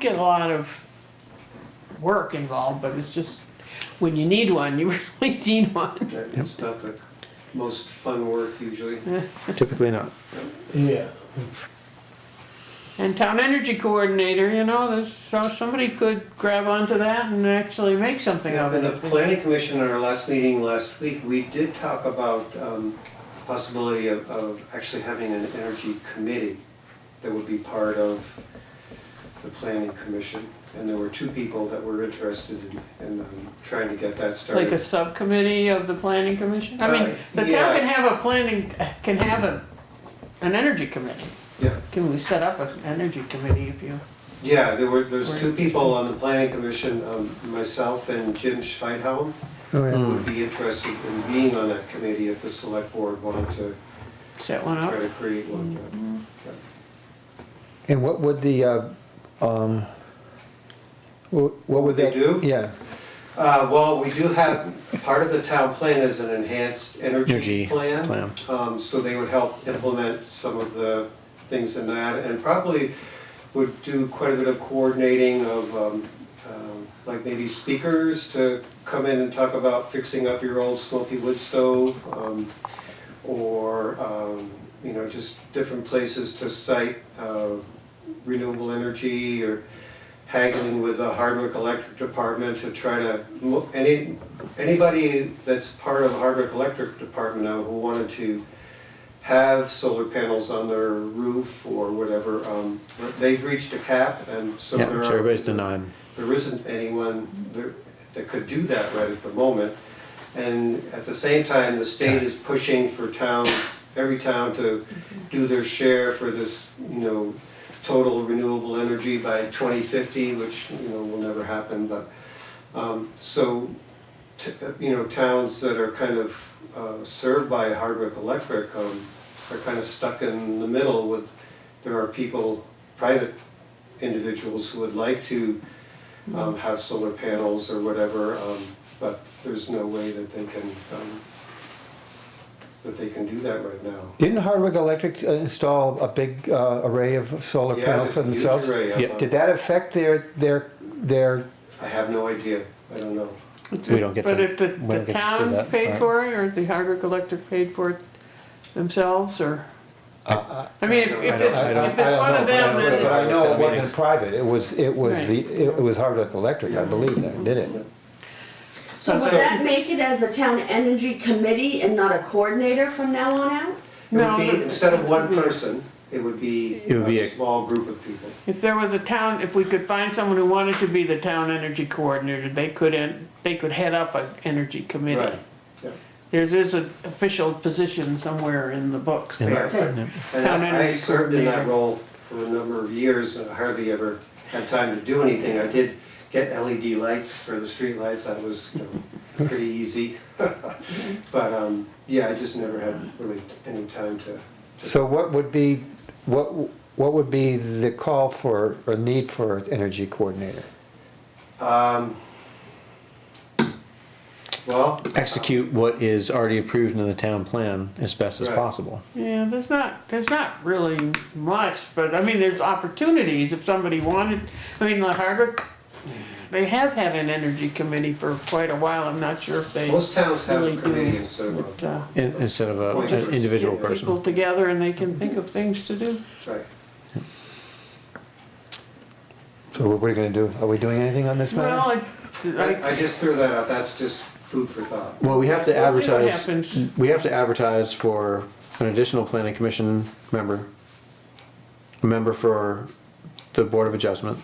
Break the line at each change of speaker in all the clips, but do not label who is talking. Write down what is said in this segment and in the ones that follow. get a lot of work involved, but it's just, when you need one, you really need one.
It's not the most fun work usually.
Typically not.
Yeah.
And town energy coordinator, you know, there's, so somebody could grab onto that and actually make something of
In the
it.
planning commission, at our last meeting last week, we did talk about um, possibility of, of actually having an energy committee that would be part of the planning commission. And there were two people that were interested in, in um, trying to get that
Like a
started.
subcommittee of the planning commission? I mean,
Uh,
the town
yeah.
can have a planning, can have a, an energy committee.
Yeah,
Can we set up an energy committee if you?
yeah, there were, there's two
Right.
people on the planning commission, um, myself and Jim Schweidhelm.
Oh, yeah.
Hmm.
would be interested in being on that committee if the select board wanted to
Set one
try
up.
to create one.
And what would the, uh, um, wh- what would
they
that?
do?
Yeah,
Uh, well, we do have, part of the town plan is an enhanced energy
Energy
plan.
plan.
Um, so they would help implement some of the things in that and probably would do quite a bit of coordinating of, um, um, like maybe speakers to come in and talk about fixing up your old smoky wood stove. Um, or, um, you know, just different places to cite, uh, renewable energy or haggling with the Hardwick Electric Department to try to, mo- any, anybody that's part of Hardwick Electric Department now who wanted to have solar panels on their roof or whatever, um, they've reached a cap and so
yeah,
there are.
so everybody's denied.
There isn't anyone there that could do that right at the moment. And at the same time, the state is pushing for towns, every town to do their share for this, you know, total renewable energy by 2050, which, you know, will never happen, but, um, so, t- you know, towns that are kind of uh, served by Hardwick Electric um, are kind of stuck in the middle with, there are people, private individuals who would like to um, have solar panels or whatever, um, but there's no way that they can, um, that they can do that right now.
Didn't Hardwick Electric uh, install a big uh, array of solar
Yeah,
panels for
there's a huge
themselves?
array of
Yeah.
them.
Did that affect their, their, their,
I have no idea, I don't know.
We don't get
But
to-
if the,
we don't
the
get to see
town
that
paid
part.
for it, or the Hardwick Electric paid for it themselves, or? I mean, if if it's,
I don't-
Uh, I don't-
if it's
I don't
one of
know,
them,
but I- But I
then,
know it wasn't private, it was, it was
Right.
the, it was Hardwick Electric, I believe that, did it?
So would
So-
that make it as a town energy committee and not a coordinator from now on out?
It would be,
No, but-
instead of one person, it would be
It would be
a
a-
small group of people.
if there was a town, if we could find someone who wanted to be the town energy coordinator, they could, en- they could head up an energy committee.
Right, yeah.
There's, there's an official position somewhere in the books there.
Right. And
Town
I- I
energy
served in that
coordinator.
role for a number of years and hardly ever had time to do anything. I did get LED lights for the streetlights, that was, you know, pretty easy. But, um, yeah, I just never had really any time to,
So what would be, what, what would be the call for, or need for an energy coordinator?
um, well,
execute what is already approved in the town plan as best as
Right.
possible.
Yeah, there's not, there's not really much, but I mean, there's opportunities if somebody wanted, I mean, the Hardwick, they have had an energy committee for quite a while, I'm not sure if they
most towns have
Really
a
do.
committee instead of,
put, uh,
In- Instead of a,
Point.
an individual
Yeah.
person.
people together and they can think of things to do.
right.
So what are we gonna do, are we doing anything on this matter?
Well, I,
I,
I,
I just threw that out, that's just food for thought.
Well, we have to
We'll see what
advertise,
happens.
we have to advertise for an additional planning commission member, a member for the board of adjustment,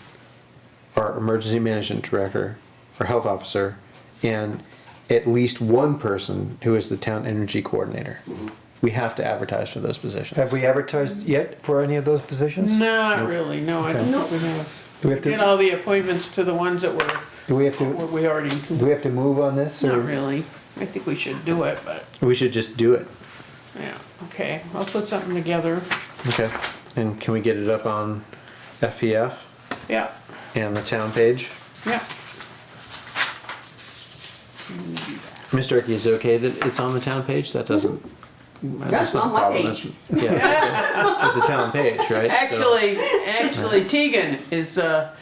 our emergency management director, our health officer, and at least one person who is the town energy coordinator.
Mm-hmm.
We have to advertise for those positions.
Have we advertised yet for any of those positions?
not really, no, I don't think we have.
Do we have
Get
to,
all the appointments to the ones that were,
do we have
were
to,
we already,
do we have to move on this? or-
not really. I think we should do it, but,
We should just do it.
yeah, okay, I'll put something together,
Okay, and can we get it up on FPF
yeah,
and the town page?
yeah.
Mr. Turkey, is it okay that it's on the town page? That doesn't.
That's
not a
on my
problem.
page.
That's- Yeah, it's a- it's a town page, right? So-
Actually, actually, Tegan is, uh,